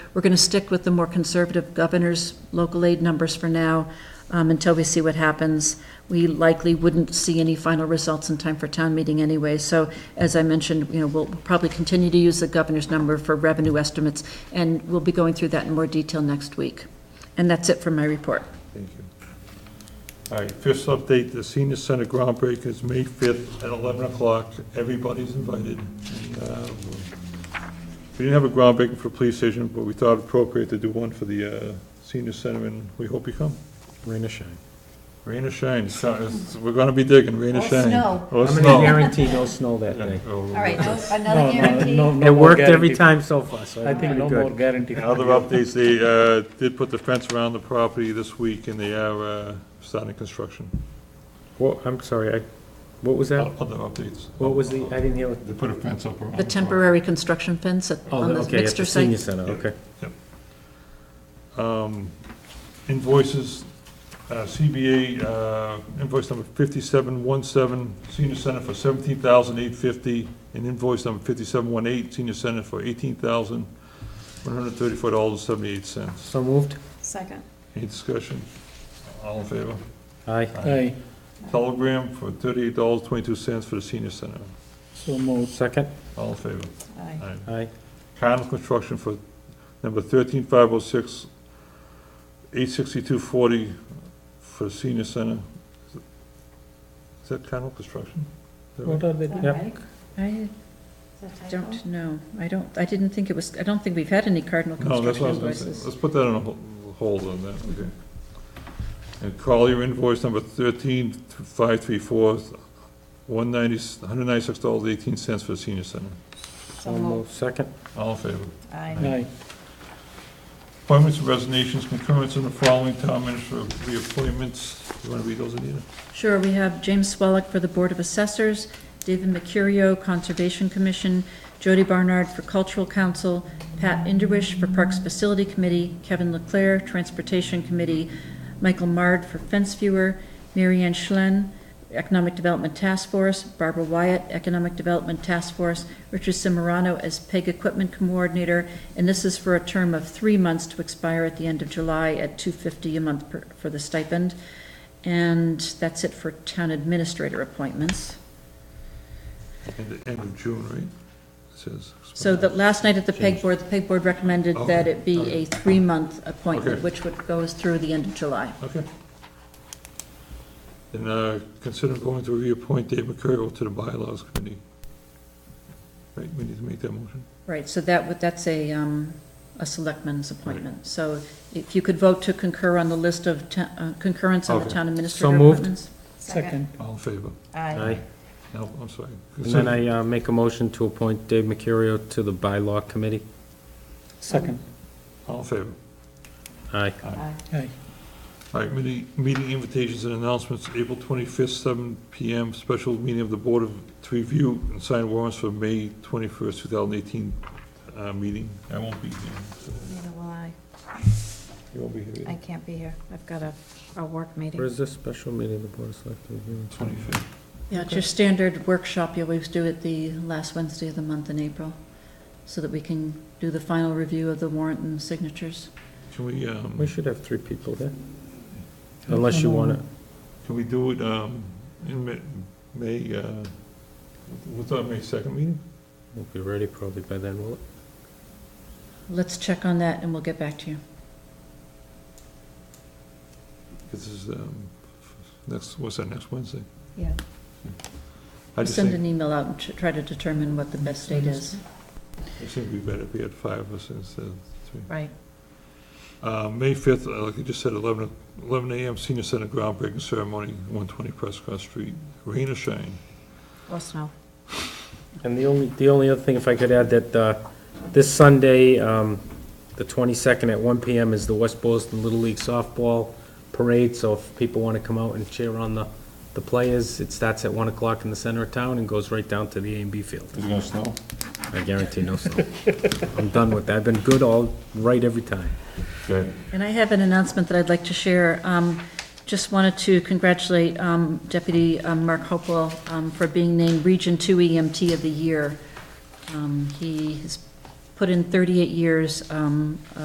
We're going to stick with the more conservative governor's local aid numbers for now um, until we see what happens. We likely wouldn't see any final results in time for town meeting anyway. So as I mentioned, you know, we'll probably continue to use the governor's number for revenue estimates, and we'll be going through that in more detail next week. And that's it for my report. Thank you. All right, fifth update, the senior center groundbreaking is May 5th at 11 o'clock. Everybody's invited. And, uh, We didn't have a groundbreaking for police station, but we thought appropriate to do one for the uh, senior center, and we hope you come. Rain or shine. Rain or shine, so it's- we're going to be digging, rain or Or shine. snow. Or I'm snow. gonna guarantee no snow that Yeah, day. oh, another It worked every time so far, so I think pretty no good. more guarantee. Other updates, they uh, did put the fence around the property this week, and they are uh, starting construction. Well, I'm sorry, I, what was that? Other updates. What was the, I didn't hear what. They put a fence up around. The property. temporary construction fence at- Oh, on the okay, at mixer the senior site. center, okay. um, invoices, uh, CBA uh, invoice number 5717, senior center for 17850 and invoice number 5718, senior center for $18,134.78. So moved? Second. Any discussion? All in favor? Aye. Aye, Telegram for $38.22 for the senior center. so moved. Second? All in favor? Aye. Aye. Aye. Cardinal Construction for number thirteen five oh six, eight sixty-two forty for senior center. Is it- Is that Cardinal Construction? Is that What right? are they doing? Yep. I don't know. I don't, I didn't think it was, I don't think we've had any Cardinal No, that's construction what I was gonna say. invoices. Let's put that on a hol- hold on that, okay. And Collier invoice number thirteen five three four, one ninety, one hundred ninety-six dollars eighteen cents for senior center. So So moved. Second? All in favor? Aye. Aye, Appointments and resignations, concurrents in the following town administrator reappointments. You wanna read those, Anita? Sure, we have James Swelick for the Board of Assessors, David Mercurio, Conservation Commission, Jody Barnard for Cultural Council, Pat Inderwish for Parks Facility Committee, Kevin Leclaire, Transportation Committee, Michael Mard for Fence Viewer, Mary Ann Schlen, Economic Development Task Force, Barbara Wyatt, Economic Development Task Force, Richard Simorano as PEG Equipment Coordinator, and this is for a term of three months to expire at the end of July at two fifty a month per- for the stipend. And that's it for town administrator appointments. At the end of June, right? It says. So that last night at the peg board, the peg board recommended that it be Okay. a three-month appointment, Okay. which would go us through the end of July. Okay. And uh, consider going to reappoint Dave McCurry to the bylaws committee. Right, we need to make that motion. Right, so that would, that's a, um, a selectman's appointment. So if you could vote to concur on the list of, ta- uh, concurrence on the Okay. town So administrator moved. appointments. second. All in favor? Aye. No, I'm sorry. And then I, uh, make a motion to appoint Dave Mercurio to the bylaw committee. Second. All in favor? Aye. Aye. Aye, All right, meeting, meeting invitations and announcements, April 25th, 7 PM, special meeting of the Board of, to review and sign warrants for May 21st, 2018 uh, meeting. I won't be here. so- Neither will I. You won't be here I either. can't be here. I've got a, a work Where meeting. is this special meeting of the Board of Selectmen? 25th. Yeah, it's your standard workshop you always do at the last Wednesday of the month in April, so that we can do the final review of the warrant and signatures. Can we, um? We should have three people there. Unless you want to, Can we do it um, in Ma- May, uh, what's our May 2nd meeting? we'll be ready probably by then, will it? Let's check on that and we'll get back to you. This is, um, next, what's that, next Wednesday? Yeah. I just Send think, an email out and ch- try to determine what the best date is. I think we better be at five of us instead of three. Right. Uh, May 5th, uh, like you just said, 11 o- 11 a.m. Senior Center groundbreaking ceremony, 120 Prescott Street. Rain or shine? Or snow. And the only, the only other thing, if I could add, that uh, this Sunday, um, the 22nd at 1 PM is the West Boylston Little League Softball Parade, so if people want to come out and cheer on the, the players, it starts at 1 o'clock in the center of town and goes right down to the A and B field. Is it gonna snow? I guarantee no snow. I'm done with that. I've been good all, right every time. Good. And I have an announcement that I'd like to share. Um, Just wanted to congratulate um, Deputy um, Mark Hopewell um, for being named Region E 2 EMT of the Year. Um, He has put in 38 years um,